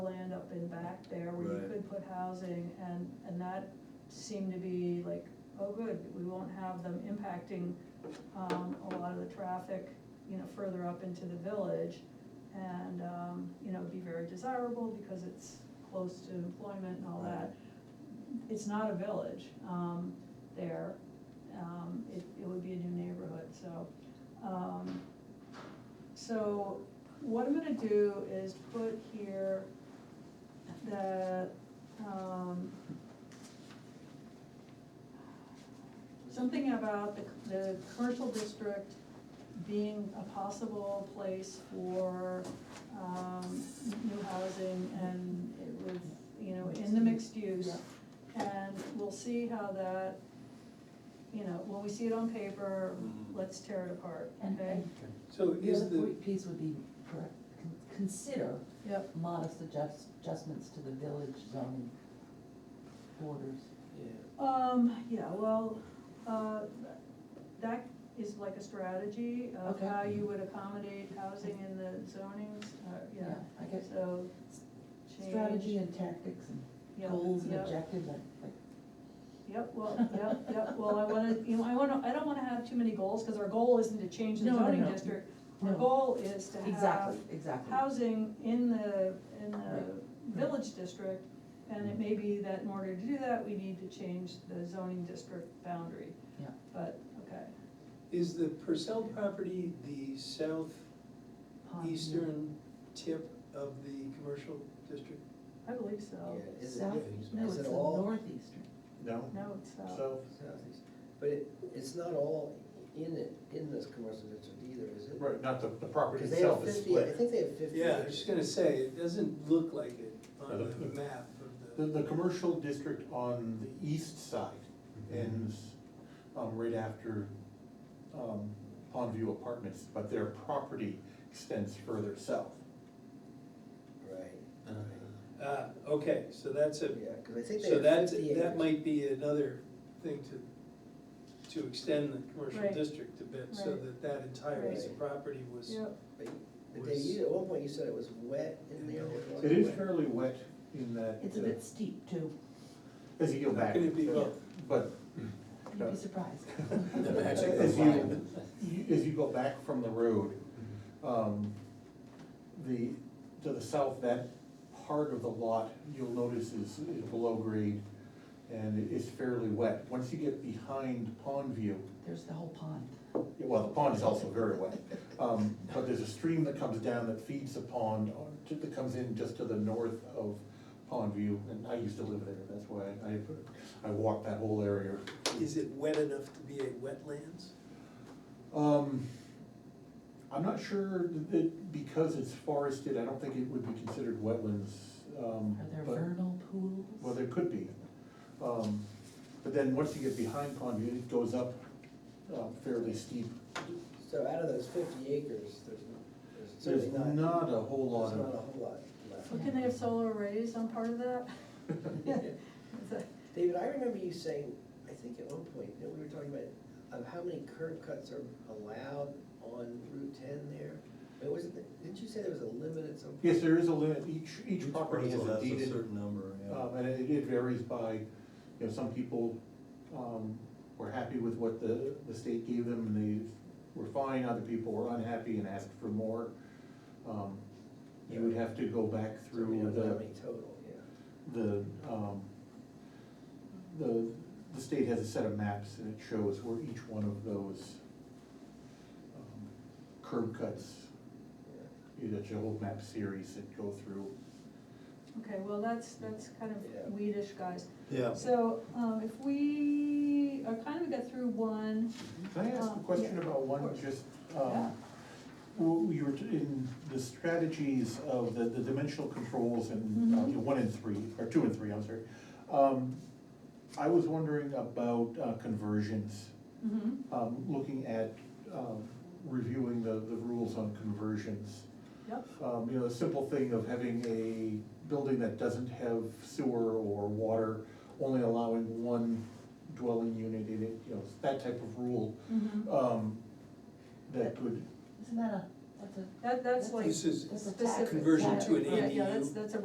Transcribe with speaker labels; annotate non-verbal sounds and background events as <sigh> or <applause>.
Speaker 1: up and back there where you
Speaker 2: Right.
Speaker 1: could put housing, and, and that seemed to be like, oh, good, we won't have them impacting, um, a lot of the traffic, you know, further up into the village. And, um, you know, be very desirable because it's close to employment and all that. It's not a village, um, there, um, it, it would be a new neighborhood, so, um, so what I'm gonna do is put here that, um, something about the, the commercial district being a possible place for, um, new housing and it was, you know, in the mixed use. And we'll see how that, you know, when we see it on paper,
Speaker 2: Mhm.
Speaker 1: let's tear it apart,
Speaker 3: And-
Speaker 1: okay?
Speaker 3: and
Speaker 4: So
Speaker 3: The
Speaker 4: is
Speaker 3: other
Speaker 4: the,
Speaker 3: point piece would be per- con- consider
Speaker 1: Yep.
Speaker 3: modest adjust, adjustments to the village zoning borders.
Speaker 4: yeah,
Speaker 1: Um, yeah, well, uh, that is like a strategy of
Speaker 3: Okay.
Speaker 1: how you would accommodate housing in the zonings, uh, yeah,
Speaker 3: I guess
Speaker 1: so. change-
Speaker 3: strategy and tactics and
Speaker 1: Yep,
Speaker 3: goals and
Speaker 1: yep,
Speaker 3: objectives, like, like,
Speaker 1: Yep, well, yep, yep, well, I wanna, you know, I wanna, I don't wanna have too many goals, cause our goal isn't to change the
Speaker 3: No, no,
Speaker 1: zoning
Speaker 3: no.
Speaker 1: district. Our
Speaker 3: No.
Speaker 1: goal is to have
Speaker 3: exactly, exactly.
Speaker 1: housing in the, in
Speaker 3: Right,
Speaker 1: the village district. And it may be that in order to do that, we need to change the zoning district boundary,
Speaker 3: Yeah,
Speaker 1: but, okay.
Speaker 4: is the Purcell property the southeastern tip of the commercial district?
Speaker 1: I believe so.
Speaker 5: Yeah, is it,
Speaker 3: South, no,
Speaker 5: is
Speaker 3: it's
Speaker 5: it
Speaker 3: the
Speaker 5: all,
Speaker 3: northeastern,
Speaker 5: no,
Speaker 1: No, it's not.
Speaker 5: south, southeast, but it, it's not all in it, in this commercial district either, is it?
Speaker 6: Right, not the, the property
Speaker 5: Because they have
Speaker 6: itself is
Speaker 5: fifty, I
Speaker 6: split.
Speaker 5: think they have fifty.
Speaker 4: Yeah, I was just gonna say, it doesn't look like it on
Speaker 6: Yeah, the-
Speaker 4: the map of
Speaker 6: The,
Speaker 4: the.
Speaker 6: the commercial district on the east side
Speaker 5: Mm-hmm.
Speaker 6: ends, um, right after, um, Pondview Apartments, but their property extends further south.
Speaker 5: Right, right,
Speaker 4: Ah, okay, so that's a,
Speaker 5: yeah, because I think they
Speaker 4: so
Speaker 5: have
Speaker 4: that's,
Speaker 5: fifty acres.
Speaker 4: that might be another thing to, to extend the commercial
Speaker 1: Right.
Speaker 4: district a bit, so
Speaker 1: Right.
Speaker 4: that that entire piece of
Speaker 5: Right.
Speaker 4: property was.
Speaker 1: Yep,
Speaker 5: But you- but Dave, you, at one point you said it was wet in there. it wasn't
Speaker 6: It is
Speaker 5: wet.
Speaker 6: fairly wet in that.
Speaker 3: it's a
Speaker 6: uh,
Speaker 3: bit steep too,
Speaker 6: As you go back.
Speaker 4: Could it be
Speaker 6: uh,
Speaker 4: both?
Speaker 6: But.
Speaker 3: you'd be
Speaker 5: <laughs>
Speaker 3: surprised.
Speaker 6: The
Speaker 5: magic of
Speaker 6: As you,
Speaker 5: line.
Speaker 6: you- as you go back from the road, um, the, to the south, that part of the lot, you'll notice is, is below grade and it is fairly wet. Once you get behind Pond View,
Speaker 3: There's the whole pond.
Speaker 6: well, the pond is also very wet. Um, but there's a stream that comes down that feeds the pond, or to- that comes in just to the north of Pond View. And I used to live there, that's why I, I walked that whole area.
Speaker 4: Is it wet enough to be a wetlands?
Speaker 6: Um, I'm not sure that, because it's forested, I don't think it would be considered wetlands,
Speaker 5: Mm.
Speaker 6: um,
Speaker 3: Are there
Speaker 6: but-
Speaker 3: vernal pools?
Speaker 6: Well, there could be. Um, but then once you get behind Pond View, it goes up, um, fairly steep.
Speaker 5: So out of those fifty acres, there's, no- there's
Speaker 6: There's
Speaker 5: certainly not.
Speaker 6: not a whole lot
Speaker 5: There's not a
Speaker 6: of,
Speaker 5: whole lot left.
Speaker 1: Well, can they have solar arrays on part of that? <laughs> Is that-
Speaker 5: David, I remember you saying, I think at one point, that we were talking about, of how many curb cuts are allowed on Route ten there? It wasn't, it- didn't you say there was a limit at some point?
Speaker 6: yes, there is a limit, each, each property has a
Speaker 2: parcel
Speaker 6: deeded.
Speaker 2: certain number, yeah.
Speaker 6: Um, and it, it varies by, you know, some people, um, were happy with what the, the state gave them, and they were fine, other people were unhappy and asked for more. Um, You would have to go back
Speaker 5: So we
Speaker 6: through
Speaker 5: don't know how many
Speaker 6: the,
Speaker 5: total, yeah.
Speaker 6: the, um, the, the state has a set of maps, and it shows where each one of those um, curb cuts,
Speaker 5: yeah.
Speaker 6: that's a whole map series that go through.
Speaker 1: Okay, well, that's, that's kind
Speaker 5: Yeah.
Speaker 1: of weedish, guys.
Speaker 2: Yeah.
Speaker 1: So, um, if we, I kind of got through one,
Speaker 6: Can I ask a
Speaker 1: Um,
Speaker 6: question
Speaker 1: yeah,
Speaker 6: about
Speaker 1: of
Speaker 6: one,
Speaker 1: course.
Speaker 6: just,
Speaker 1: Yeah.
Speaker 6: um, well, you were, t- in the strategies of the, the dimensional controls and, uh,
Speaker 1: Mhm.
Speaker 6: you know, one and three, or two and three, I'm sorry. Um, I was wondering about uh, conversions,
Speaker 1: mm-hmm,
Speaker 6: um, looking at, um, reviewing the, the rules on conversions.
Speaker 1: yep,
Speaker 6: Um, you know, the simple thing of having a building that doesn't have sewer or water, only allowing one dwelling unit in it, you know, that type of rule
Speaker 1: mm-hmm.
Speaker 6: um, that could
Speaker 3: Isn't that a, that's a
Speaker 1: That, that's like
Speaker 4: This is
Speaker 3: That's a
Speaker 1: specific.
Speaker 4: conversion
Speaker 3: to an
Speaker 1: Yeah, Yeah,
Speaker 4: ADU.
Speaker 1: that's, that's a